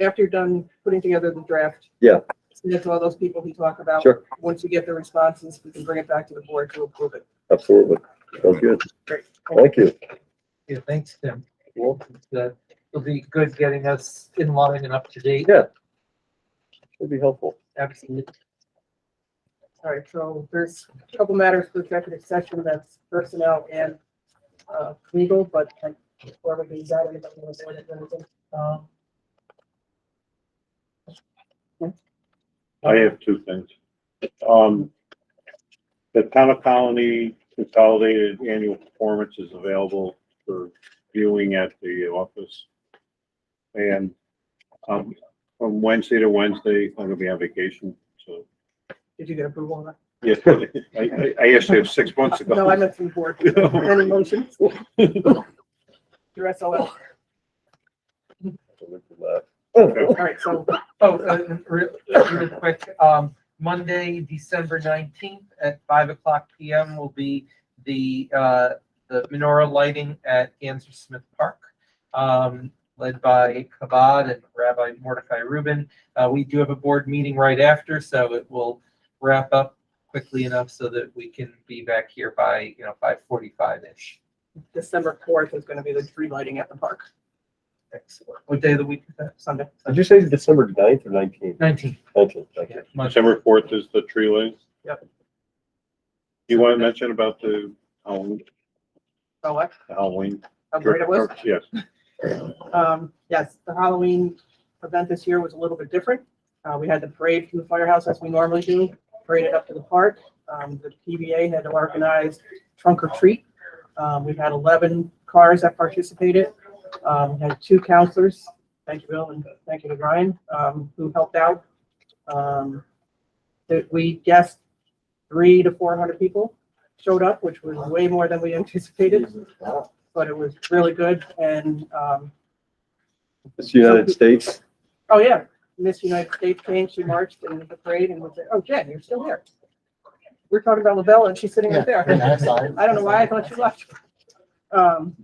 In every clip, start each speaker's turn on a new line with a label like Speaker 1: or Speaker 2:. Speaker 1: after you're done putting together the draft.
Speaker 2: Yeah.
Speaker 1: Send it to all those people we talk about.
Speaker 2: Sure.
Speaker 1: Once you get the responses, we can bring it back to the board to approve it.
Speaker 2: Absolutely. Sounds good.
Speaker 1: Great.
Speaker 2: Thank you.
Speaker 3: Yeah, thanks, Tim.
Speaker 2: Well-
Speaker 3: That will be good getting us in line and up to date.
Speaker 2: Yeah. It'd be helpful.
Speaker 3: Absolutely.
Speaker 1: All right, so there's a couple matters for executive session, that's personnel and uh, legal, but like, whoever brings out anybody wants to say anything. Um,
Speaker 4: I have two things. Um, the town of Colony consolidated annual performance is available for viewing at the office. And, um, from Wednesday to Wednesday, I'm gonna be on vacation, so.
Speaker 1: Did you get approval on that?
Speaker 4: Yes, I, I, I asked you six months ago.
Speaker 1: No, I meant from board. Any motions? Your SLL. All right, so
Speaker 3: Oh, uh, real, real quick, um, Monday, December nineteenth at five o'clock PM will be the, uh, the menorah lighting at Ganser Smith Park, um, led by Kabod and Rabbi Mordecai Rubin. Uh, we do have a board meeting right after, so it will wrap up quickly enough so that we can be back here by, you know, five forty-five-ish.
Speaker 1: December fourth is gonna be the tree lighting at the park,
Speaker 3: Excellent. What day of the week is that?
Speaker 1: Sunday.
Speaker 2: Did you say December ninth or nineteenth?
Speaker 3: Nineteenth.
Speaker 2: Nineteenth, thank you.
Speaker 4: December fourth is the tree lights.
Speaker 1: Yep.
Speaker 4: You want to mention about the Halloween,
Speaker 1: So what?
Speaker 4: Halloween?
Speaker 1: How great it was?
Speaker 4: Yes,
Speaker 1: Um, yes, the Halloween event this year was a little bit different. Uh, we had the parade from the firehouse as we normally do, paraded up to the park. Um, the PBA had organized trunk or treat. Um, we had eleven cars that participated. Um, we had two counselors, thank you, Bill, and thank you to Ryan, um, who helped out. Um, that we guessed three to four hundred people showed up, which was way more than we anticipated, but it was really good and, um,
Speaker 2: It's the United States.
Speaker 1: Oh, yeah. Miss United States came, she marched in the parade and was like, oh, Jen, you're still there. We're talking about LaBella and she's sitting right there. I don't know why I thought you left. Um,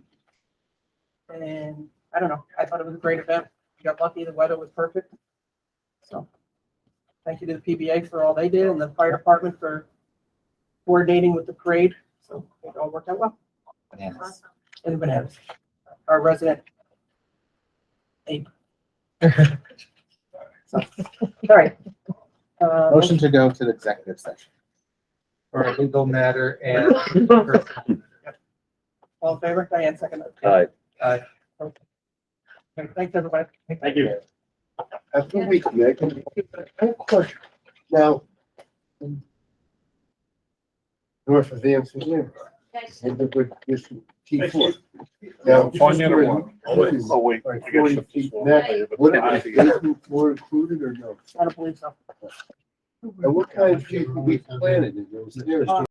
Speaker 1: and I don't know. I thought it was a great event. We got lucky. The weather was perfect. So thank you to the PBA for all they did and the fire department for coordinating with the parade. So it all worked out well. And the bananas, our resident. ape. So, All right. Uh,
Speaker 5: Motion to go to the executive session.
Speaker 3: Or a legal matter and.
Speaker 1: All in favor? Diane, second.
Speaker 2: Hi.
Speaker 3: Uh,
Speaker 1: Okay, Thanks, everybody.
Speaker 4: thank you.
Speaker 5: After we, Nick, I have a question. Now. North of the MCU. And the good, this T four. Now.
Speaker 4: Oh, wait. I
Speaker 5: Like
Speaker 4: got
Speaker 5: forty
Speaker 4: you.
Speaker 5: feet back, would it be basement floor included or no?
Speaker 1: I don't believe so.
Speaker 5: And what kind of tree we planted in those stairs?